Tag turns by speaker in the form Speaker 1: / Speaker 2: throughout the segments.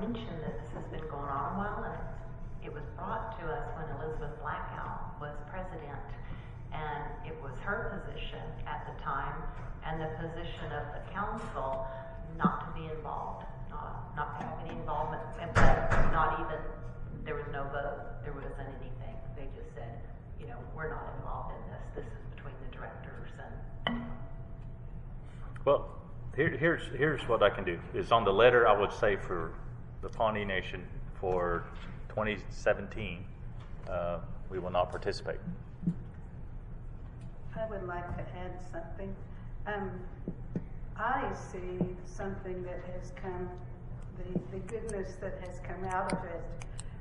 Speaker 1: mention that this has been going on a while, and it was brought to us when Elizabeth Blackout was president, and it was her position at the time, and the position of the council not to be involved, not, not to have any involvement, and but not even, there was no vote, there wasn't anything. They just said, you know, we're not involved in this, this is between the directors and,
Speaker 2: Well, here, here's, here's what I can do, is on the letter, I would say for the Pawnee Nation for twenty seventeen, uh, we will not participate.
Speaker 3: I would like to add something. Um, I see something that has come, the, the goodness that has come out of it.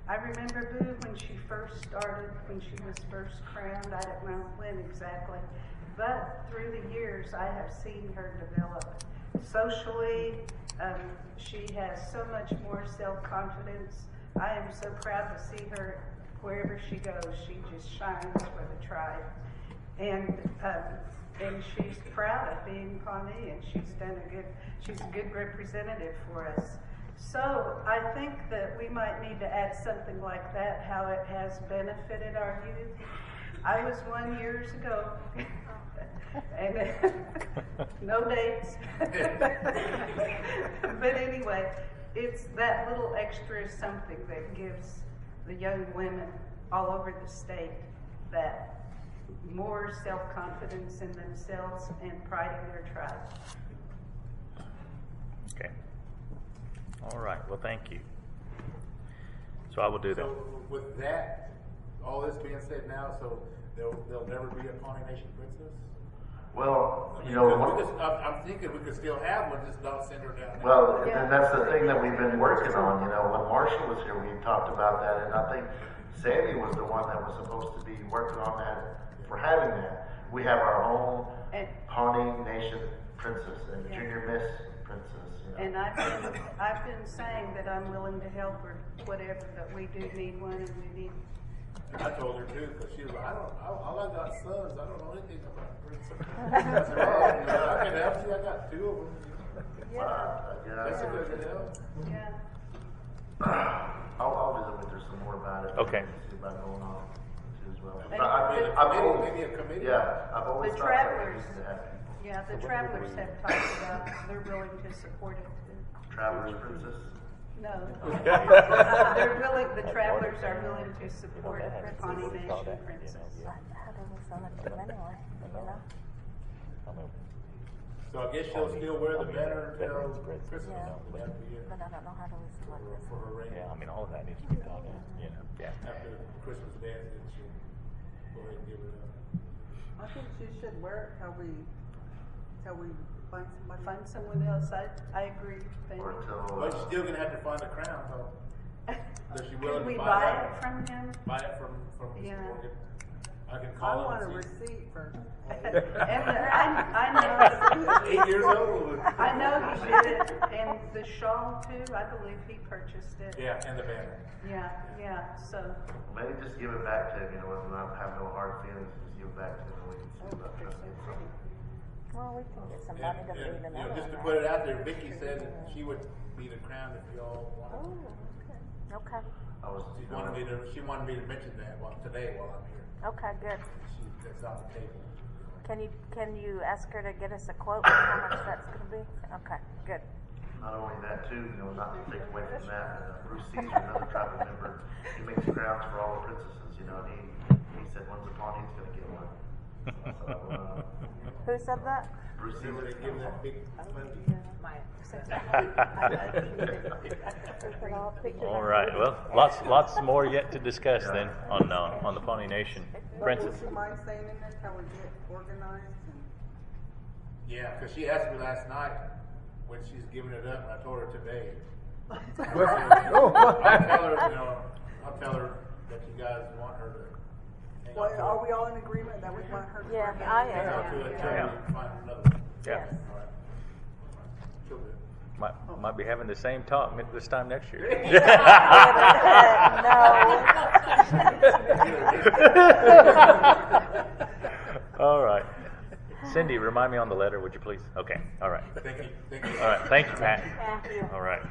Speaker 3: I remember Boo when she first started, when she was first crowned, I don't know when exactly. But through the years, I have seen her develop socially. Um, she has so much more self-confidence. I am so proud to see her wherever she goes. She just shines for the tribe. And, um, and she's proud of being Pawnee and she's done a good, she's a good representative for us. So I think that we might need to add something like that, how it has benefited our youth. I was one years ago and no dates. But anyway, it's that little extra something that gives the young women all over the state that more self-confidence in themselves and pride in their tribe.
Speaker 2: Okay. All right, well, thank you. So I will do that.
Speaker 4: So with that, all this being said now, so there'll, there'll never be a Pawnee Nation princess?
Speaker 5: Well, you know,
Speaker 4: Because
Speaker 5: one-
Speaker 4: we just, I'm, I'm thinking we could still have one, just don't send her down there.
Speaker 5: well, and
Speaker 3: Yeah.
Speaker 5: that's the thing that we've been working on, you know, when Marshall was here, we talked about that, and I think Sandy was the one that was supposed to be working on that, for having that. We have our own
Speaker 3: And-
Speaker 5: Pawnee Nation princess and
Speaker 3: Yeah.
Speaker 5: junior miss princess, you know.
Speaker 3: And I've been, I've been saying that I'm willing to help or whatever, but we do need one and we need,
Speaker 4: And I told her too, because she was like, I don't, I, all I got sons, I don't know anything about princess. I said, well, you know, I can help you, I got two of them.
Speaker 3: yeah,
Speaker 5: Wow,
Speaker 4: That's a good
Speaker 5: Uh, yeah.
Speaker 4: deal.
Speaker 3: yeah.
Speaker 5: I'll, I'll visit with her some more about it.
Speaker 2: Okay.
Speaker 5: See about going on too as well.
Speaker 3: Maybe-
Speaker 5: But I-
Speaker 3: maybe a
Speaker 5: I've
Speaker 4: committee-
Speaker 5: always-
Speaker 4: maybe a committee.
Speaker 5: Yeah, I've always
Speaker 3: The
Speaker 5: thought that we
Speaker 3: travelers.
Speaker 5: used to have people.
Speaker 3: Yeah, the travelers have talked about, they're willing to support it too.
Speaker 5: Travelers princess.
Speaker 3: No. They're willing, the travelers are willing to support the Pawnee Nation princess.
Speaker 6: How do we select them anyway, you know?
Speaker 4: So I guess she'll still wear the banner until
Speaker 2: Veterans princess,
Speaker 4: Christmas,
Speaker 6: you know,
Speaker 4: and that'd be it,
Speaker 6: But I don't know how do we
Speaker 4: for,
Speaker 6: select this
Speaker 4: for her reign.
Speaker 2: Yeah, I mean, all of that needs to be done, you know, yeah.
Speaker 4: After Christmas dance, then she'll go ahead and give it up.
Speaker 7: I think she should wear it till we, till we find somebody.
Speaker 3: Find someone else, I, I agree, thank
Speaker 5: Or
Speaker 3: you.
Speaker 5: till,
Speaker 4: But
Speaker 5: uh,
Speaker 4: you're still gonna have to find a crown, though. Does she willing
Speaker 3: Can we
Speaker 4: to
Speaker 3: buy
Speaker 4: buy
Speaker 3: it
Speaker 4: that?
Speaker 3: from him?
Speaker 4: Buy it from, from Mr.
Speaker 3: Yeah.
Speaker 4: Morgan? I can
Speaker 7: I
Speaker 4: call
Speaker 7: want a
Speaker 4: him and see.
Speaker 7: receipt for,
Speaker 3: And uh, I, I know.
Speaker 4: Eight years old.
Speaker 3: I know he did it, and the shawl too, I believe he purchased it.
Speaker 4: Yeah, and the banner.
Speaker 3: Yeah, yeah, so,
Speaker 5: maybe just give it back to him, you know, and not have no hard feelings, just give it back to him and we can see about that.
Speaker 6: Well, we can
Speaker 4: And,
Speaker 6: get somebody to be
Speaker 4: and,
Speaker 6: the
Speaker 4: you know,
Speaker 6: middle.
Speaker 4: just to put it out there, Vicky said she would be the crown if y'all wanted.
Speaker 6: Okay,
Speaker 5: I was,
Speaker 4: She wanted me to, she wanted me to mention that while, today while I'm here.
Speaker 6: okay, good.
Speaker 4: She, that's off the table.
Speaker 6: Can you, can you ask her to get us a quote on how much that's gonna be? Okay, good.
Speaker 5: not only that too, you know, not to take away from that, uh, Bruce Caesar, another tribal member, he makes crowns for all the princesses, you know, and he, he said, when's the Pawnee's gonna get one? So, uh,
Speaker 6: Who said that?
Speaker 5: Bruce
Speaker 4: See where
Speaker 5: Caesar,
Speaker 4: they give that big money.
Speaker 2: All right, well, lots, lots more yet to discuss then on, uh, on the Pawnee Nation
Speaker 7: but would
Speaker 2: princess.
Speaker 7: you mind staying in there till we get organized and?
Speaker 4: Yeah, because she asked me last night when she's giving it up, and I told her today. I'll tell her, you know, I'll tell her that you guys want her to. hang on
Speaker 7: Well,
Speaker 4: to it.
Speaker 7: are we all in agreement that we want her? to
Speaker 6: Yeah,
Speaker 7: organize?
Speaker 6: I
Speaker 4: Hang on to
Speaker 6: am.
Speaker 4: it until
Speaker 2: Yeah.
Speaker 4: we find another one.
Speaker 2: Yeah,
Speaker 6: Yes.
Speaker 4: All right. She'll do it.
Speaker 2: might, might be having the same talk mi- this time next year. All right. Cindy, remind me on the letter, would you please? Okay, all right.
Speaker 4: Thank you, thank you.
Speaker 2: All right, thank you, Pat.
Speaker 6: Thank you.
Speaker 2: All right.